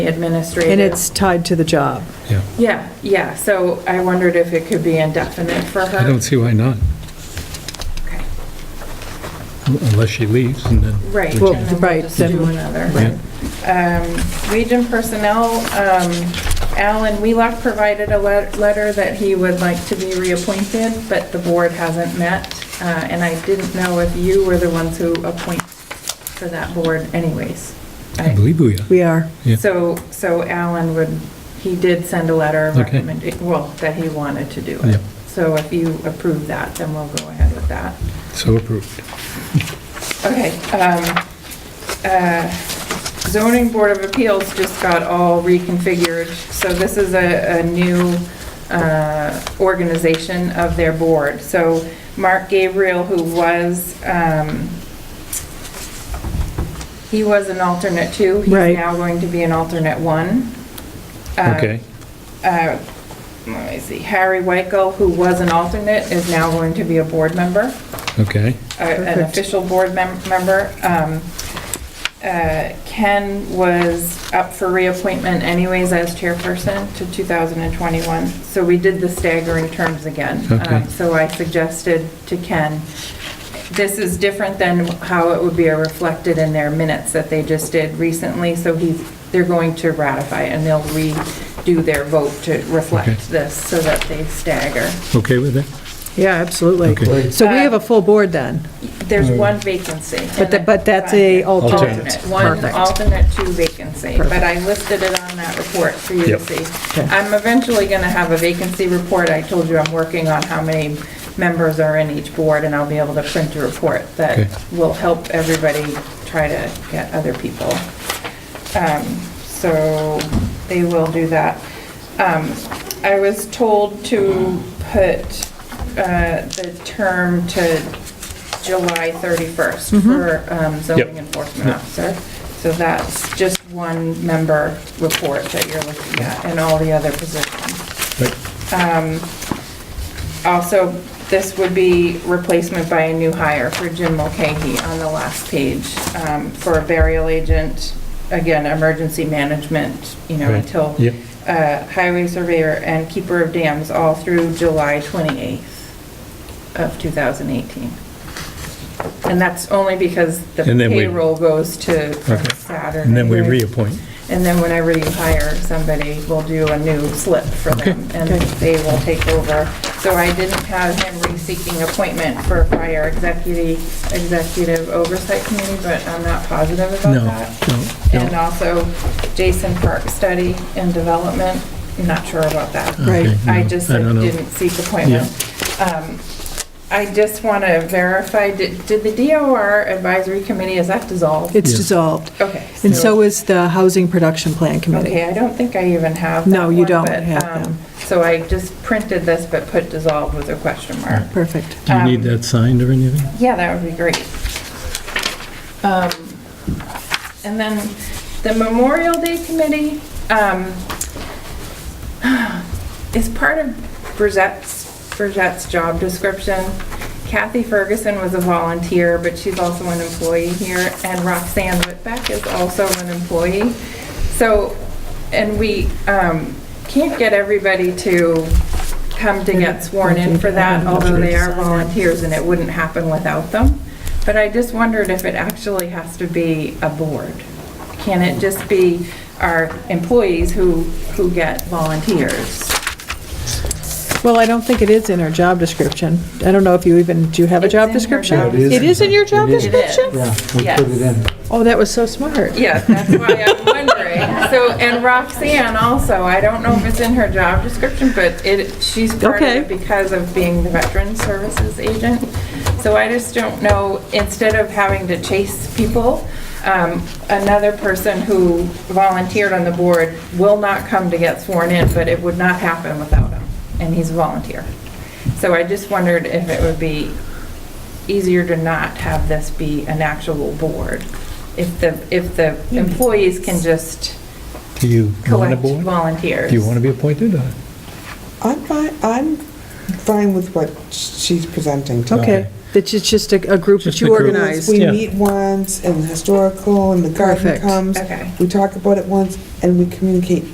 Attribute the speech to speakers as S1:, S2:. S1: administrative.
S2: And it's tied to the job.
S3: Yeah,
S1: Yeah, yeah, so I wondered if it could be indefinite for her.
S3: I don't see why not,
S1: Okay,
S3: unless she leaves and then.
S1: Right.
S2: Well,
S1: and then we'll
S2: right,
S1: just
S2: then-
S1: do another.
S3: Right.
S1: Um, Region Personnel, um, Alan Wheelock provided a let- letter that he would like to be reappointed, but the board hasn't met, uh, and I didn't know if you were the ones who appoint for that board anyways.
S3: I believe we are.
S2: We are.
S3: Yeah.
S1: So, so Alan would, he did send a letter of
S3: Okay.
S1: recommend, well, that he wanted to do
S3: Yeah.
S1: it. So if you approve that, then we'll go ahead with that.
S3: So approved.
S1: Okay. um, uh, Zoning Board of Appeals just got all reconfigured, so this is a, a new uh, organization of their board. So Mark Gabriel, who was, um, he was an alternate two.
S2: Right.
S1: He's now going to be an alternate one. Uh,
S3: Okay,
S1: uh, Let me see, Harry Weichel, who was an alternate, is now going to be a board member
S3: okay.
S1: a- an
S2: Perfect.
S1: official board mem- member. Um, uh, Ken was up for reappointment anyways as chairperson to 2021, so we did the staggering terms again.
S3: Okay.
S1: Um, So I suggested to Ken, this is different than how it would be reflected in their minutes that they just did recently, so he's, they're going to ratify it, and they'll redo their vote to
S3: Okay.
S1: reflect this so that they stagger.
S3: Okay with it?
S2: Yeah, absolutely. Uh,
S3: Okay.
S2: So we have a full board then,
S1: There's
S3: Mm.
S1: one vacancy.
S2: But the- but that's a alternate.
S1: One
S2: Perfect.
S1: alternate, two vacancy, but I listed it on that report for you to
S3: Yep.
S1: see.
S2: Okay.
S1: I'm eventually gonna have a vacancy report, I told you I'm working on how many members are in each board, and I'll be able to print a report
S3: Okay.
S1: that will help everybody try to get other people. Um, So they will do that. Um, I was told to put uh, the term to July 31st for um, zoning
S3: Yep.
S1: enforcement officer. So that's just one member report that you're looking at and all the other positions.
S3: Right.
S1: Also, this would be replacement by a new hire for Jim Mulcahy on the last page um, for a burial agent, again, emergency management, you know,
S3: Right.
S1: until
S3: Yep.
S1: uh, highway surveyor and keeper of dams all through July 28th of 2018. And that's only because the
S3: And then we-
S1: payroll goes to
S3: Okay.
S1: Saturday.
S3: And then we reappoint.
S1: And then whenever you hire somebody, we'll do a new slip for them, and they will take over. So I didn't have him re-seeking appointment for fire executive, executive oversight committee, but I'm not positive about
S3: No,
S1: that.
S3: no,
S1: And uh,
S3: no.
S1: also Jason Park Study and Development, I'm not sure about that.
S2: Right.
S3: Okay, no,
S1: I just
S3: I don't know.
S1: didn't seek appointment. Um, I just want to verify, did did the DOR Advisory Committee, is that dissolved?
S2: it's
S3: Yeah.
S2: dissolved.
S1: Okay.
S2: And so is the Housing Production Plan Committee.
S1: Okay, I don't think I even have that
S2: No, you
S1: one,
S2: don't
S1: but,
S2: have
S1: um,
S2: them.
S1: So I just printed this, but put dissolved with a question mark.
S2: Perfect.
S3: Do you need
S1: um,
S3: that signed or anything?
S1: Yeah, that would be great. Um, And then the Memorial Day Committee um, is part of Bridgette's, Bridgette's job description. Kathy Ferguson was a volunteer, but she's also an employee here, and Roxanne Whitbeck is also an employee. So, and we um, can't get everybody to come to get sworn in for that, although they are volunteers and it wouldn't happen without them. But I just wondered if it actually has to be a board. Can it just be our employees who, who get volunteers?
S2: Well, I don't think it is in our job description. I don't know if you even, do you have a
S1: It's in
S2: job
S1: her
S2: description?
S1: job
S4: Yeah, it is.
S2: It is in your job
S4: It is.
S1: It
S2: description?
S4: Yeah,
S1: is.
S4: we put it
S1: Yes.
S4: in.
S2: Oh, that was so smart.
S1: Yes, that's why I'm wondering. So, and Roxanne also, I don't know if it's in her job description, but it, she's part of it
S2: Okay.
S1: because of being the Veteran Services Agent. So I just don't know, instead of having to chase people, um, another person who volunteered on the board will not come to get sworn in, but it would not happen without him, and he's a volunteer. So I just wondered if it would be easier to not have this be an actual board. If the, if the employees can just
S3: Do you want a
S1: collect
S3: board?
S1: volunteers.
S3: Do you want to be appointed or?
S5: I'm fine, I'm fine with what she's presenting to me.
S2: Okay. That it's just a a group that
S3: Just a
S2: you
S3: group.
S2: organize.
S4: We
S3: Yeah.
S4: meet once, and the historical, and the garden
S2: Perfect.
S4: comes.
S1: Okay.
S4: We talk about it once, and we communicate